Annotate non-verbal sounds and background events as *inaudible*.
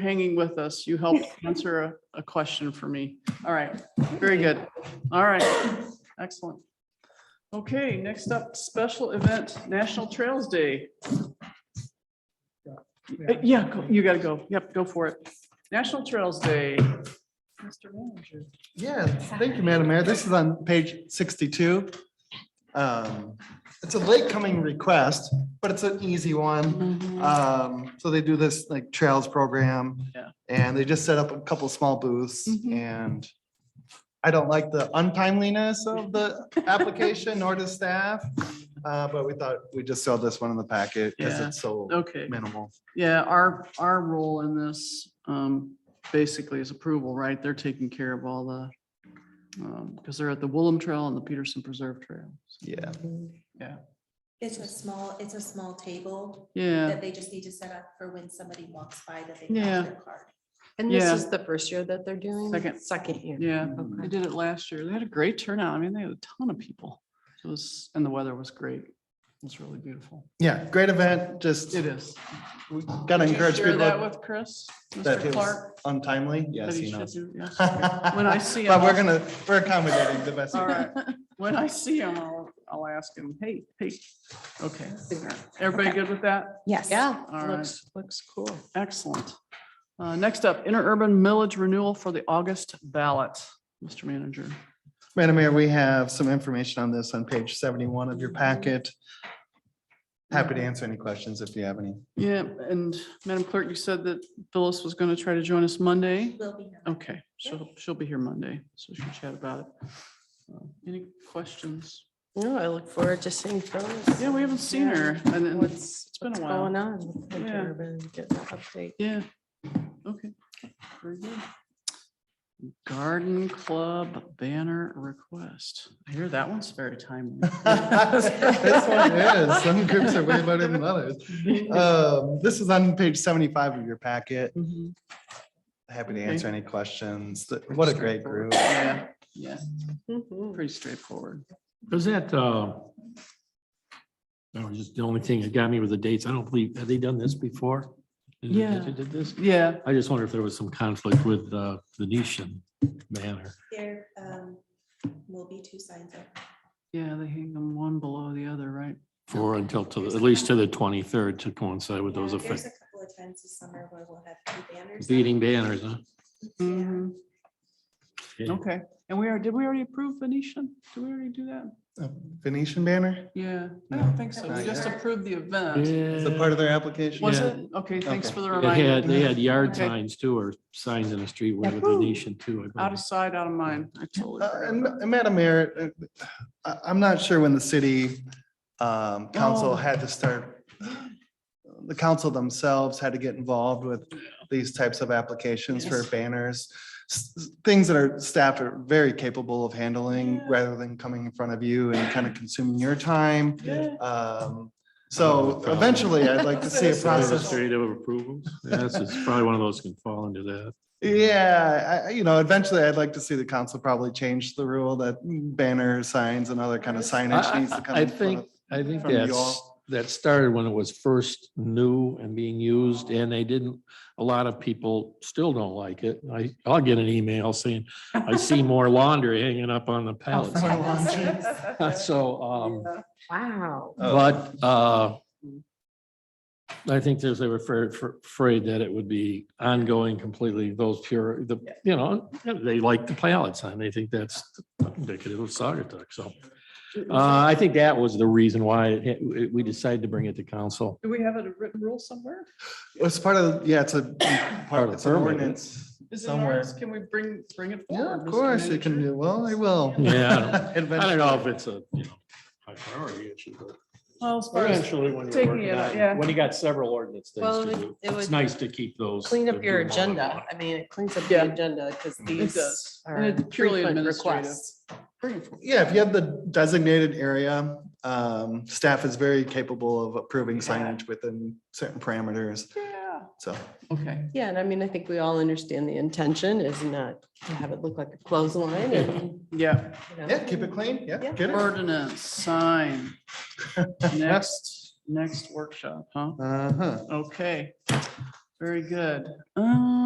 hanging with us. You helped answer a, a question for me. All right, very good. All right, excellent. Okay, next up, special event, National Trails Day. Uh, Yeah, go- you gotta go. Yep, go for it. National Trails Day. Mr. Manager. Yeah, thank you, Madam Mayor. This is on page sixty-two. Um, It's a late coming request, but it's an easy one. Uh, Um, So they do this like trails program. Yeah. And they just set up a couple small booths Mhm. and I don't like the untimeliness of the application nor the staff. uh, But we thought we just saw this one in the packet because Yeah. it's so Okay. minimal. Yeah, our, our role in this um, basically is approval, right? They're taking care of all the, because they're at the Woolham Trail and the Peterson Preserve Trail. Yeah. It's a small, it's a small table Yeah, that they just need to set up for when somebody walks by that they Yeah. have their card. And this Yeah. is the first year that they're doing? Second. Second year. yeah. They Okay. did it last year. They had a great turnout. I mean, they had a ton of people. It was, and the weather was great. It was really beautiful. Yeah, great event. Just It is. we gotta Did you encourage Share people. that with Chris, that Mr. feels Clark. Untimely, that yes, he he should *laughs* knows. do, yes. When When I see But him, we're I'll- gonna, we're accommodating the best. we All can. right. When I see him, I'll, I'll ask him, hey, hey, okay. Everybody good with that? Yes. Yeah, All right. looks, looks cool. Excellent. Uh, Next up, interurban millage renewal for the August ballot. Mr. Manager. Madam Mayor, we have some information on this on page seventy-one of your packet. Happy to answer any questions if you have any. *laughs* Yeah, and Madam Clerk, you said that Phyllis was going to try to join us Monday. Will be. here. Okay, she'll, she'll be here Monday, so she'll chat about it. Uh, Any questions? No, I look forward to seeing Phyllis. Yeah, we haven't seen her. And then, What's, been a what's while. going on? with Yeah. Durban, Getting an update. yeah, okay. very good. Garden Club banner request. I hear that one's very timely. *laughs* This one is, some groups are way better than others. *laughs* Um, This is on page seventy-five of your packet. Mhm. Happy to Okay. answer any questions. What a great group. Yeah, yeah, Mhm. pretty straightforward. Was that, uh, that was just the only thing that got me with the dates. I don't believe, have they done this before? Did they- Yeah. Did they did this? Yeah, I just wonder if there was some conflict with, uh, Venetian Manor. There um, will be two signs up. yeah, they hang them one below the other, right? For until to, at least to the twenty-third to coincide with those Yeah, There's effects, a couple of times this summer where we'll have two banners. up. beating banners, huh? Yeah. Mm-hmm. Yeah. Okay, and we are, did we already approve Venetian? Did we already do that? Venetian banner? Yeah, I No, don't think so. We not just yet. approved the event. Is that part Yeah. of their application? Was Yeah. it? Okay, thanks Okay. for the They had, reminder. they had yard Okay. signs too, or signs in the street with Yeah. Venetian too. I believe. Out of sight, out of mind. I totally. Uh, *laughs* And forgot. and Madam Mayor, uh, I, I'm not sure when the city um, Oh. council had to start, the council themselves had to get involved with these types of applications for Yes. banners. s- s- Things that our staff are very capable of handling Yeah. rather than coming in front of you and kind of consuming your time. Yeah. Um, Another So problem. eventually, I'd like to see a Administrative process. Administrative approvals. Yes, it's probably one of those can fall into that. Yeah, I- I, you know, eventually I'd like to see the council probably change the rule that banner signs and other kind of signage needs to come. I in front think, of- I think from you that's, all. that started when it was first new and being used and they didn't, a lot of people still don't like it. I, I'll get an email saying, *laughs* I see more laundry hanging up on the pallets. Front Oh, lawn trees. *laughs* So, um, Wow. Oh. but, uh, I think there's, they were afraid, afraid that it would be ongoing completely, those pure, the, you know, they like the pallets and they think that's indicative of Sagatuck, so. Uh, I think that was the reason why it- it- we decided to bring it to council. Do we have a written rule somewhere? It's part of, yeah, it's a, part of it's an permit. ordinance Is it in somewhere. ours? Can we bring, bring it forward? Yeah, of Mr. course, it can, Manager? do. well, I will. *laughs* Yeah. I don't Eventually. know if it's a, you know, high priority issue, but Well, as far as eventually when you're Taking working it out, on, yeah. it, when you got several ordinance Well, things it would- to do, it it's would nice to keep those. Clean uh, up your do them all at agenda. once. I mean, it cleans up your Yeah. agenda because does. these And are it's purely frequent administrative. requests. bring it forward. Yeah, if you have the designated area, um, staff is very capable of approving signage within certain parameters, Yeah, so. okay. Yeah, and I mean, I think we all understand the intention is not to have it look like a clothesline and, Yeah, you know. Yeah, keep it clean, yeah, Yeah. get it. ordinance, sign. Next, next workshop, huh? Uh-huh. Okay. Very good. Um,